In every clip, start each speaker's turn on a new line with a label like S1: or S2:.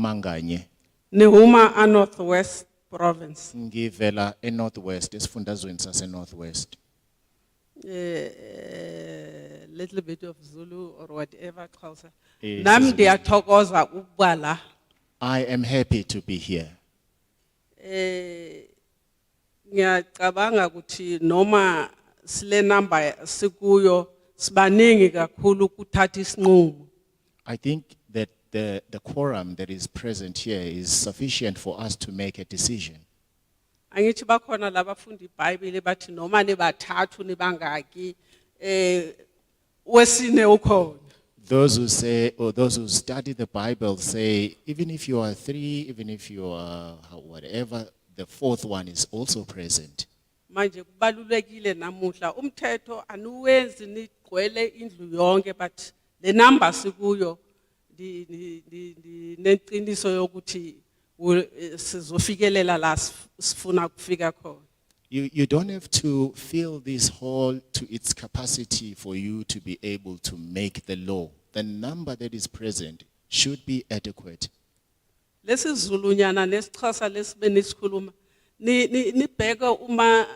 S1: manganye
S2: Nehuma a Northwest Province.
S1: ngivela eNorthwest esifundazweni saseNorthwest
S2: A Eh, little bit of Zulu or whatever, Xhosa.
S1: Eh,
S2: Nam
S1: sisiZulu.
S2: ndiyathokoza ukuba la.
S1: I am happy to be here
S2: Eh ngiyacabanga ukuthi noma sile number sikuyo sibaningi kakhulu ukuthatha isinqumo.
S1: I think that the the quorum that is present here is sufficient for us to make a decision
S2: Angithi bakhona labafunda iBhayibheli bathi noma nibathathu nibangaki eh wesine ukhona.
S1: Those who say, or those who study the Bible say, even if you are three, even if you are how- whatever, the fourth one is also present.
S2: manje kubalulekile namuhla umthetho anuwenzi nigcwele indlu yonke but le number sikuyo ndi- ndi- ndi- ndi- neqiniso yokuthi wu- eh, sizofikelela la sif- sifuna kufika khona
S1: You, you don't have to fill this hall to its capacity for you to be able to make the law. The number that is present should be adequate.
S2: lesizulunyana nesixhosa lesibe nisikhuluma ni- ni- nibheke uma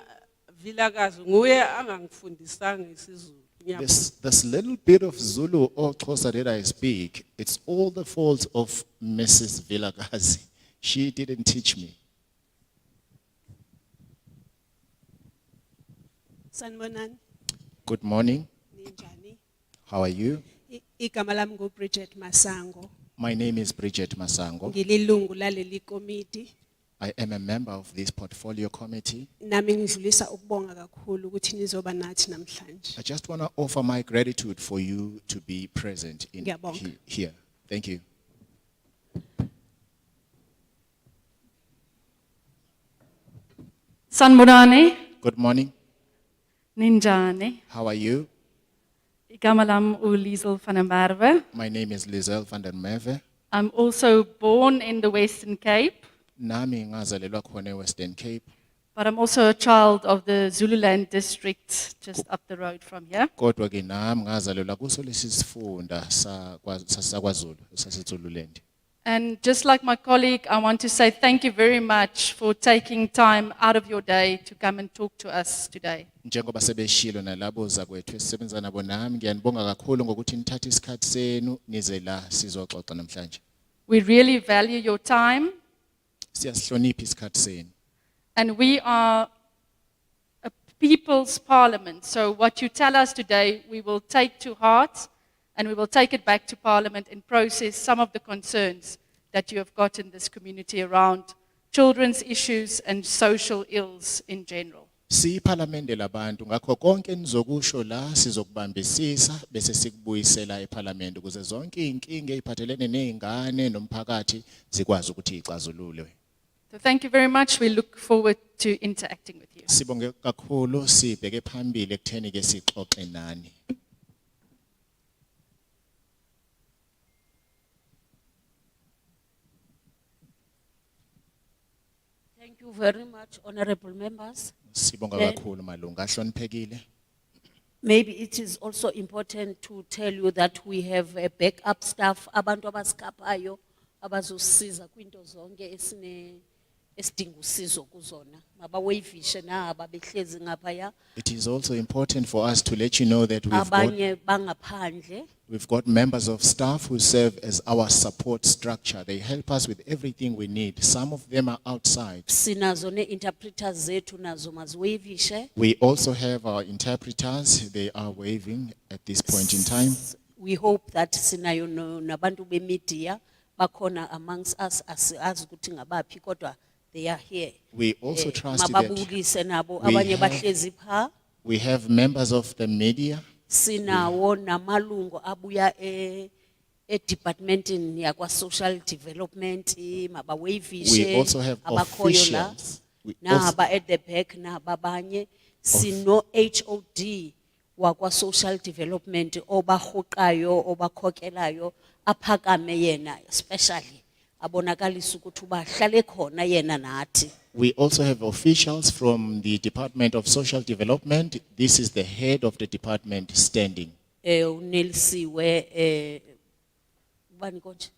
S2: vilakazi nguye angangifundisanga isizulu ngiyabonga
S1: This, this little bit of Zulu or Xhosa that I speak, it's all the fault of Mrs. Vilagazi. She didn't teach me.
S3: Sanibonani,
S1: Good morning.
S3: ninjani?
S1: How are you?
S3: I- Igama lami nguBridget Masango.
S1: My name is Bridget Masango.
S3: Ngililungu laleli komiti.
S1: I am a member of this portfolio committee.
S3: Nami ngidlulisa ukubonga kakhulu ukuthi nizoba nathi namhlanje.
S1: I just want to offer my gratitude for you to be present in
S3: Ngiyabonga.
S1: he- here. Thank you.
S4: Sanbonani,
S1: Good morning.
S4: Ninjani,
S1: How are you?
S4: Igamalam Ulizel van der Merwe.
S1: My name is Lizelle van der Merwe.
S4: I'm also born in the Western Cape,
S1: Nami ngazalelwa khona Western Cape.
S4: but I'm also a child of the Zululand district just up the road from here.
S1: Kodwa ke nami ngazalelwa kuso lesifunda sa kwa- sa- sakwaZulu saseZululand.
S4: And just like my colleague, I want to say thank you very much for taking time out of your day to come and talk to us today.
S1: Njengoba sebeshilo nalabo zakwethu esisebenza nabo nami ngiyanibonga kakhulu ngokuthi nithathe isikhathi senu nize la sizoxoxa namhlanje.
S4: We really value your time,
S1: Siyasihlonipha isikhathi senu.
S4: and we are a people's parliament. So, what you tell us today, we will take to heart and we will take it back to parliament and process some of the concerns that you have got in this community around children's issues and social ills in general.
S1: Siyiphalamende labantu ngakho konke nizokusho la sizokubambisisa bese sikubuyisela ephalamende ukuze zonke inkinga eziphathelene nezingane nomphakathi zikwazi ukuthi ixazululwe.
S4: So, thank you very much. We look forward to interacting with you.
S1: Sibonge kakhulu sibheke phambili ekutheni ke sixoxe nani.
S5: Thank you very much, honorable members.
S1: Sibonga
S5: Eh.
S1: kakhulu malunga ahloniphekile.
S5: Maybe it is also important to tell you that we have a backup staff, abantu abaskapayo, abazosiza kwinto zonke esine, esidinga usizo kuzona. Mabawavishe na ababehlezi ngaphaya,
S1: It is also important for us to let you know that we've got,
S5: abanye bangaphandle.
S1: we've got members of staff who serve as our support structure. They help us with everything we need. Some of them are outside.
S5: Sinazo ne interpreters zetu nazo maziwavishe.
S1: We also have our interpreters. They are waving at this point in time.
S5: We hope that sinayo no- nabantu bemedia, bakona amongst us, asiyazi ukuthi ngabaphi kodwa they are here.
S1: We also
S5: Eh,
S1: trust that
S5: mababulise nabo
S1: we
S5: abanye
S1: have-
S5: bahlezi pha
S1: we have members of the media.
S5: sinawo namalungu abuya e edepartmentini yakwa social development eh,
S1: We
S5: mabawavishe
S1: also have
S5: abakhoyo la
S1: officials. We also-
S5: naba at the back nababanye sino HOD wakwa social development obahoqayo obakhokelayo aphakame yena especially abonakalisa ukuthi ubahlale khona yena nathi
S1: We also have officials from the Department of Social Development. This is the head of the department standing.
S5: eh unelisiwe eh ubani konje